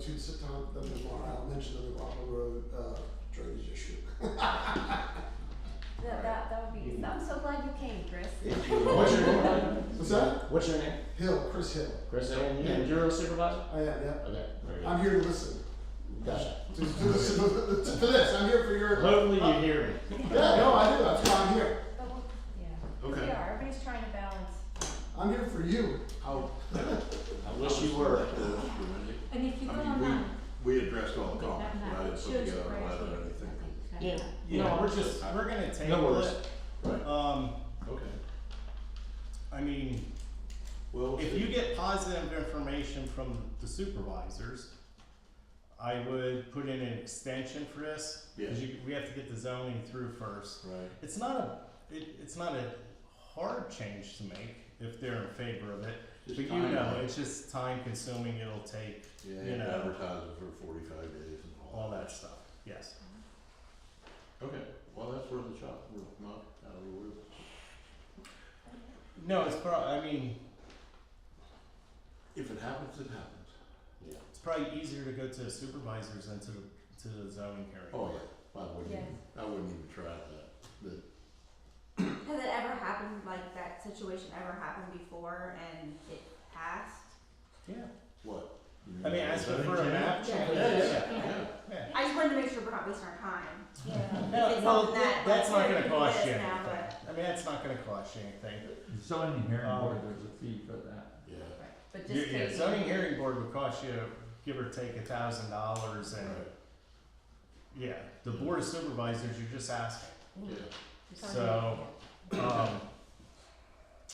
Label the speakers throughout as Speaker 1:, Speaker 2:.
Speaker 1: two sit down, the I'll mention the Navajo Road uh drainage issue.
Speaker 2: That, that, that would be, I'm so glad you came, Chris.
Speaker 3: What's your name?
Speaker 1: What's that?
Speaker 3: What's your name?
Speaker 1: Hill, Chris Hill.
Speaker 3: Chris, and you- and you're a supervisor?
Speaker 1: I am, yeah.
Speaker 3: Okay, very good.
Speaker 1: I'm here to listen.
Speaker 3: Gotcha.
Speaker 1: To to listen to to this. I'm here for your
Speaker 3: Hopefully you hear me.
Speaker 1: Yeah, no, I do. That's why I'm here.
Speaker 2: But we'll- Yeah, we
Speaker 4: Okay.
Speaker 2: are, everybody's trying to balance.
Speaker 1: I'm here for you.
Speaker 3: Oh, I wish you were.
Speaker 2: And if you
Speaker 4: I
Speaker 2: go
Speaker 4: mean, we-
Speaker 2: online.
Speaker 4: We addressed all
Speaker 2: Okay,
Speaker 4: the comments,
Speaker 2: not-
Speaker 4: but I didn't
Speaker 2: not-
Speaker 4: put together
Speaker 2: choose
Speaker 4: a letter or
Speaker 2: prayers.
Speaker 4: anything.
Speaker 2: Okay,
Speaker 3: Yeah.
Speaker 2: got it.
Speaker 3: Yeah.
Speaker 5: No, we're just, we're gonna
Speaker 3: No
Speaker 5: table
Speaker 3: worries.
Speaker 5: it.
Speaker 3: Right.
Speaker 5: Um,
Speaker 4: Okay.
Speaker 5: I mean,
Speaker 4: Well,
Speaker 5: if you get positive information from the supervisors, I would put in an extension for this, cause you, we have to get the zoning through first.
Speaker 4: Right.
Speaker 5: It's not a, it, it's not a hard change to make if they're in favor of it, but
Speaker 4: Just
Speaker 5: you
Speaker 4: time,
Speaker 5: know,
Speaker 4: right?
Speaker 5: it's just time consuming, it'll take
Speaker 4: Yeah,
Speaker 5: you
Speaker 4: you
Speaker 5: know.
Speaker 4: advertise it for forty-five days and
Speaker 5: all
Speaker 4: all.
Speaker 5: that stuff, yes.
Speaker 4: Okay, well, that's worth a shot, we're not out of the woods.
Speaker 5: No, it's prob, I mean,
Speaker 4: If it happens, it happens.
Speaker 5: it's probably easier to go to the supervisors than to the, to the zoning hearing.
Speaker 4: Oh, yeah, I wouldn't,
Speaker 2: Yes.
Speaker 4: even- I wouldn't even try that, but,
Speaker 6: Has it ever happened, like that situation ever happened before and it passed?
Speaker 5: Yeah.
Speaker 4: what?
Speaker 5: I mean, as for for a map
Speaker 6: Yeah.
Speaker 5: change,
Speaker 4: Yeah,
Speaker 5: yeah,
Speaker 4: yeah, yeah,
Speaker 5: yeah.
Speaker 6: I just wanted to make sure we're not wasting our time.
Speaker 2: Yeah.
Speaker 5: No,
Speaker 6: It's
Speaker 5: Uh, well,
Speaker 6: something that-
Speaker 5: that's not gonna
Speaker 6: like,
Speaker 5: cost you
Speaker 6: this now,
Speaker 5: anything. I mean, that's not gonna cost you anything.
Speaker 7: Zoning hearing
Speaker 5: Um,
Speaker 7: board, there's a fee for that.
Speaker 4: yeah,
Speaker 2: But
Speaker 5: You-
Speaker 2: just
Speaker 5: Yeah,
Speaker 2: taking-
Speaker 5: zoning hearing board would cost you, give or take, a thousand dollars and,
Speaker 4: right,
Speaker 5: yeah, the board of supervisors, you're just asking.
Speaker 4: yeah.
Speaker 5: So, um,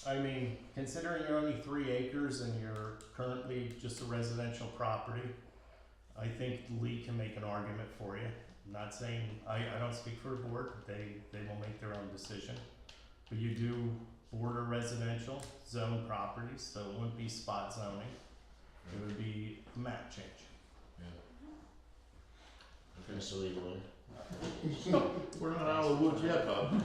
Speaker 5: I mean, considering you're only three acres and you're currently just a residential property, I think Lee can make an argument for you. Not saying, I, I don't speak for the board, they, they will make their own decision. But you do border residential zone properties, so it wouldn't be spot zoning, it would be map change.
Speaker 4: Okay,
Speaker 3: Mr. Lee Wood.
Speaker 4: we're not out of the woods yet, Bob.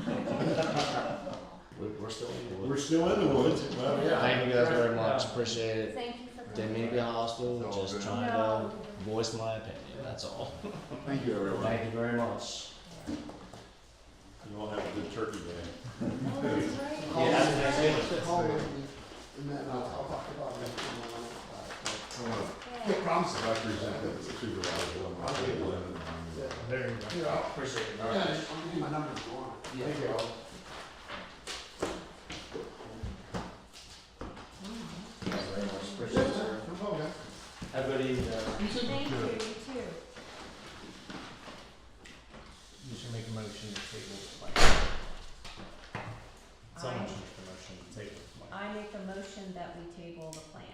Speaker 3: We're, we're still in the woods.
Speaker 4: We're still in the woods, well, yeah.
Speaker 3: Thank you guys very much, appreciate it.
Speaker 2: Thank you for coming.
Speaker 3: Didn't mean to be hostile,
Speaker 4: It's all
Speaker 3: just
Speaker 4: Oh, good.
Speaker 3: trying to voice my opinion, that's all.
Speaker 4: Thank you, everyone.
Speaker 3: Thank you very much.
Speaker 4: You all have a good turkey day.
Speaker 2: Oh, that's right.
Speaker 1: Call me,
Speaker 3: that's next year.
Speaker 1: call me, and then I'll, I'll talk about it. tomorrow.
Speaker 4: I wanna
Speaker 2: Yeah.
Speaker 1: No promises.
Speaker 4: I present that to the supervisor on my table and,
Speaker 1: Yeah,
Speaker 4: um,
Speaker 5: There you go.
Speaker 1: Here, I'll-
Speaker 3: Appreciate it.
Speaker 1: yeah, I'll give you my number if you want. Thank you.
Speaker 3: Thank you very much, appreciate
Speaker 1: Yeah,
Speaker 3: it. sir.
Speaker 1: no problem.
Speaker 3: Have a good evening.
Speaker 2: Thank you, you too.
Speaker 5: You should make a motion to table the plan. Someone
Speaker 2: I-
Speaker 5: should make a motion to table the plan.
Speaker 2: I make a motion that we table the plan.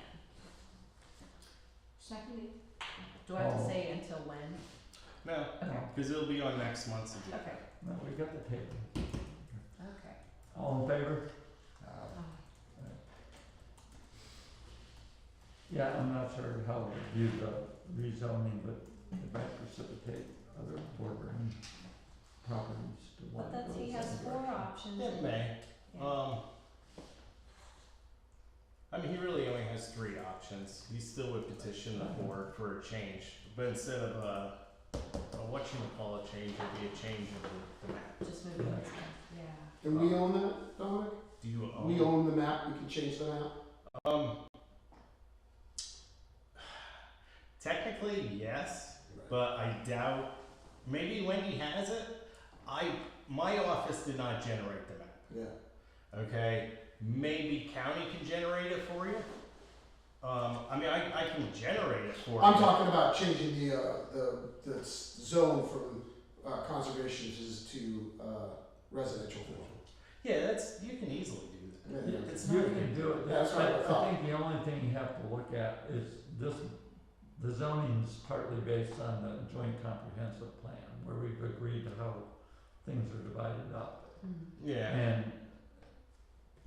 Speaker 6: Seconded.
Speaker 2: Do I have to
Speaker 7: Oh.
Speaker 2: say until when?
Speaker 5: No,
Speaker 2: Okay,
Speaker 5: because it'll be on next month's agenda.
Speaker 2: okay,
Speaker 7: No, we got the table.
Speaker 2: okay.
Speaker 7: All in favor?
Speaker 2: Oh.
Speaker 7: Yeah, I'm not sure how we do the rezoning, but it might precipitate other bordering properties to
Speaker 2: But
Speaker 7: want to go
Speaker 2: that's, he
Speaker 7: the
Speaker 2: has
Speaker 7: same
Speaker 2: four
Speaker 7: direction.
Speaker 2: options.
Speaker 5: It may.
Speaker 2: Yeah.
Speaker 5: Um, I mean, he really only has three options. He still would petition the board for a change, but instead of a, a what you would call a change, it'd be a change of the, the map.
Speaker 2: Just moving
Speaker 7: Yeah.
Speaker 2: this one, yeah.
Speaker 1: And we own that, Dominic?
Speaker 5: Do you own?
Speaker 1: We own the map, we can change the map.
Speaker 5: Um, technically, yes. but I doubt. Maybe Wendy has it. I my office did not generate the map.
Speaker 1: Yeah.
Speaker 5: Okay, maybe county can generate it for you. Um, I mean, I, I can generate it for
Speaker 1: I'm
Speaker 5: you.
Speaker 1: talking about changing the, uh, the, the s- zone from, uh, conservation to, to, uh, residential.
Speaker 5: Yeah, that's you can easily do that.
Speaker 1: Yeah.
Speaker 5: It's
Speaker 7: You
Speaker 5: not
Speaker 7: can do it,
Speaker 1: That's
Speaker 7: that's,
Speaker 1: what I
Speaker 7: I
Speaker 1: thought.
Speaker 7: think the only thing you have to look at is this, the zoning is partly based on the joint comprehensive plan, where we've agreed to how things are divided up.
Speaker 2: Mm.
Speaker 7: Hmm.
Speaker 5: Yeah,
Speaker 7: And,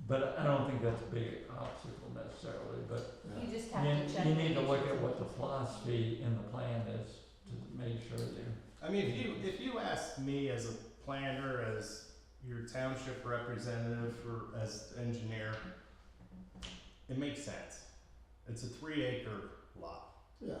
Speaker 7: but I don't think that's a big obstacle necessarily, but
Speaker 1: Yeah.
Speaker 2: You just have to check.
Speaker 7: you, you
Speaker 2: the
Speaker 7: need to look at
Speaker 2: pictures.
Speaker 7: what the philosophy in the plan is to make sure that
Speaker 5: I mean, if you if you ask me as a planner, as your township representative, or as engineer, it makes sense. It's a three acre lot.
Speaker 1: Yeah,